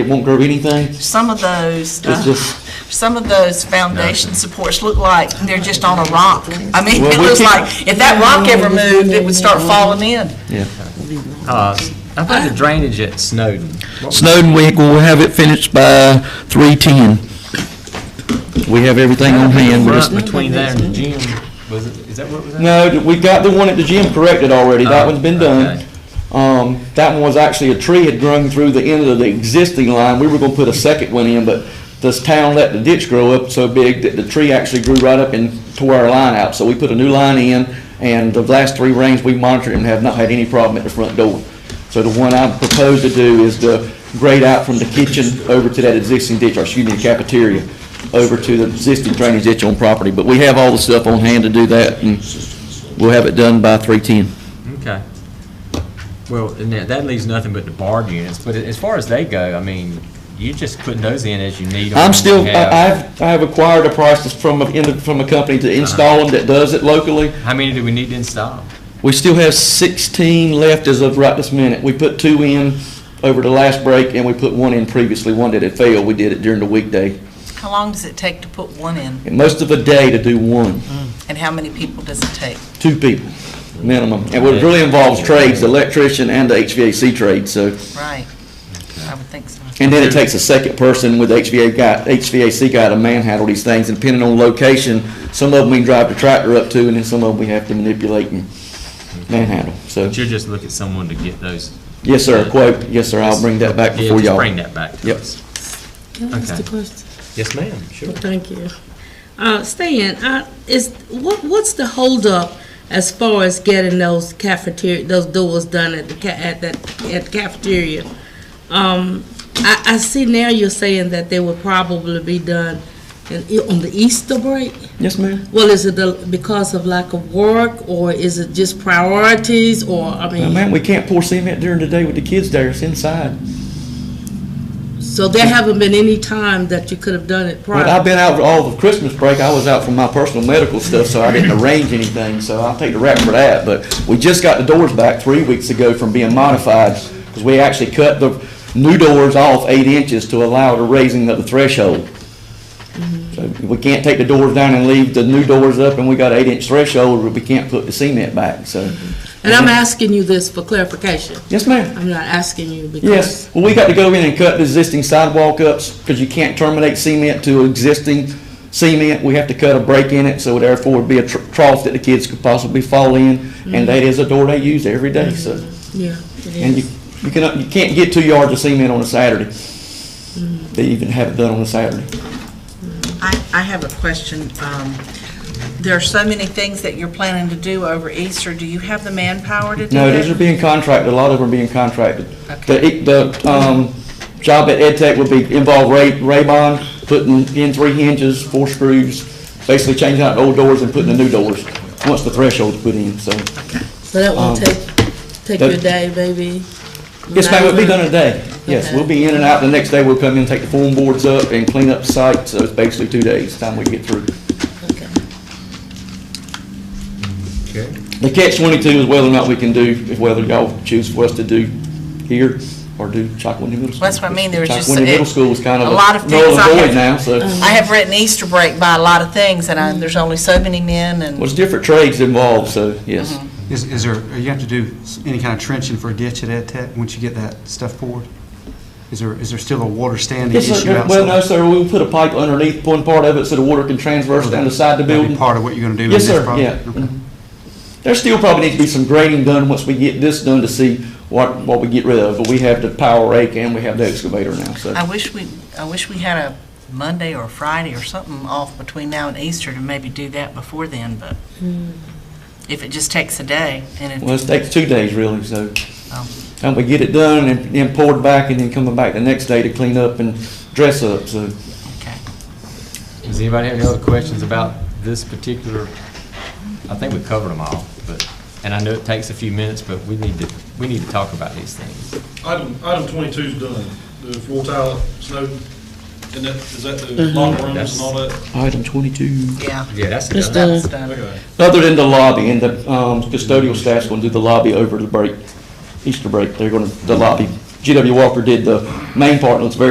It won't curb anything? Some of those, It's uh, just, some of those foundation supports look like they're just on a rock. I mean, Well, it we looks keep- like, if that rock ever moved, it would start falling in. yeah. Uh, How about the drainage at Snowden? Snowden, we will have it finished by 3:10. We have everything on hand. We just- Front Between there and the gym, was it, is that what was that? No, we got the one at the gym corrected already. That one's been done. Okay. Um, that one was actually, a tree had grown through the end of the existing line. We were gonna put a second one in, but this town let the ditch grow up so big that the tree actually grew right up and tore our line out. So we put a new line in, and the last three rains, we monitored and have not had any problem at the front door. So the one I propose to do is to grade out from the kitchen over to that existing ditch, or excuse me, cafeteria, over to the existing drainage ditch on property. But we have all the stuff on hand to do that, and we'll have it done by three-ten. Okay. Well, and that, that leaves nothing but the barred units, but as far as they go, I mean, you're just putting those in as you need them. I'm still, You have- I- I've, I have acquired a price from, a- in- from a company to install them that does it locally. How many do we need to install? We still have 16 left as of right this minute. We put two in over the last break, and we put one in previously, one that had failed. We did it during the weekday. How long does it take to put one in, And most of a day to do one, and how many people does it take? two people minimum. And what it really involves trades, the electrician and the HVAC trade, so. Right, I would think so. And then it takes a second person with HVA guy, HVAC guy to manhandle these things, and depending on location, some of them we can drive the tractor up to, and then some of them we have to manipulate and manhandle, so. But you'll just look at someone to get those. Yes, sir, a quote, yes, sir, I'll bring that back Yeah, before just y'all. Bring that back to Yep. us. Can I ask Okay. a question? Yes, ma'am, sure. Thank you. Uh, Stan, I, is, what, what's the holdup as far as getting those cafeteria, those doors done at the ca, at that, at the cafeteria? Um, I, I see now you're saying that they will probably be done in, on the Easter break? Yes, ma'am. Well, is it the- because of lack of work, or is it just priorities, or, I Now, mean, ma'am, we can't pour cement during the day with the kids there, it's inside. so there haven't been any time that you could have done it prior? But I've been out for all of Christmas break, I was out for my personal medical stuff, so I didn't arrange anything, so I'll take the rap for that, but we just got the doors back three weeks ago from being modified, because we actually cut the new doors off eight inches to allow the raising of the threshold. So we can't take the doors down and leave the new doors up, and we got eight inch threshold, but we can't put the cement back, so. And I'm asking you this for clarification. Yes, ma'am. I'm not asking you because. Yes, well, we got to go in and cut the existing sidewalk ups, because you can't terminate cement to existing cement. We have to cut a break in it, so therefore it'd be a tr- trough that the kids could possibly fall in, and that is a door they use every day, so. Yeah, it And you, is. you cannot, you can't get two yards of cement on a Saturday. They even have it done on a Saturday. I, I have a question. Um, There are so many things that you're planning to do over Easter. Do you have the manpower to do No, that? these are being contracted, a lot of them are being contracted. The, Okay. the, um, job at Ed Tech would be, involve Ray, Raybon, putting in three hinges, four screws, basically changing out the old doors and putting the new doors, once the threshold's put in, so. So that won't um, take, take that- your day, baby? Yes, ma'am, it'll be done in a day. Yes, Okay. we'll be in and out, the next day we'll come in, take the form boards up and clean up the site, so it's basically two days, time we get through. Okay. Okay. The catch twenty-two is whether or not we can do, if whether y'all choose for us to do here or do Chalkawindy Middle School. That's what I mean, there was just- Chalkawindy Middle it- School is kind of a lot a of null things I and void had- Mm-hmm. now, so. I have written Easter break by a lot of things, and I, there's only so many men, and Well, it's different trades involved, so, yes. Mm-hmm. Is, is there, uh, you have to do s- any kind of trenching for a ditch at Ed Tech once you get that stuff poured? Is there, is there still a water standing Yes, issue sir. outside? Well, no, sir, we'll put a pipe underneath one part of it so the water can transverse down the side of the That'd be building. part of what you're gonna do in Yes, this sir, project? yeah. Mm-hmm. Okay. There still probably needs to be some grading done once we get this done to see what, what we get rid of, but we have the power rake and we have the excavator now, so. I wish we, I wish we had a Monday or a Friday or something off between now and Easter to maybe do that before then, but if it just takes a day, and Well, it, it takes two days really, so. Oh. And we get it done and then poured back and then coming back the next day to clean up and dress up, so. okay. Does anybody have any other questions about this particular? I think we covered them all, but, and I know it takes a few minutes, but we need to, we need to talk about these things. Item, item twenty-two's done, the floor tile, at Snowden, and that, is that the locker rooms and all that? Item twenty-two. Yeah, Yeah, that's It's done. done. that's done. Okay. Other than the lobby, and the um, custodial staff's gonna do the lobby over the break, Easter break, they're gonna, the lobby. GW Walker did the main part, and it's very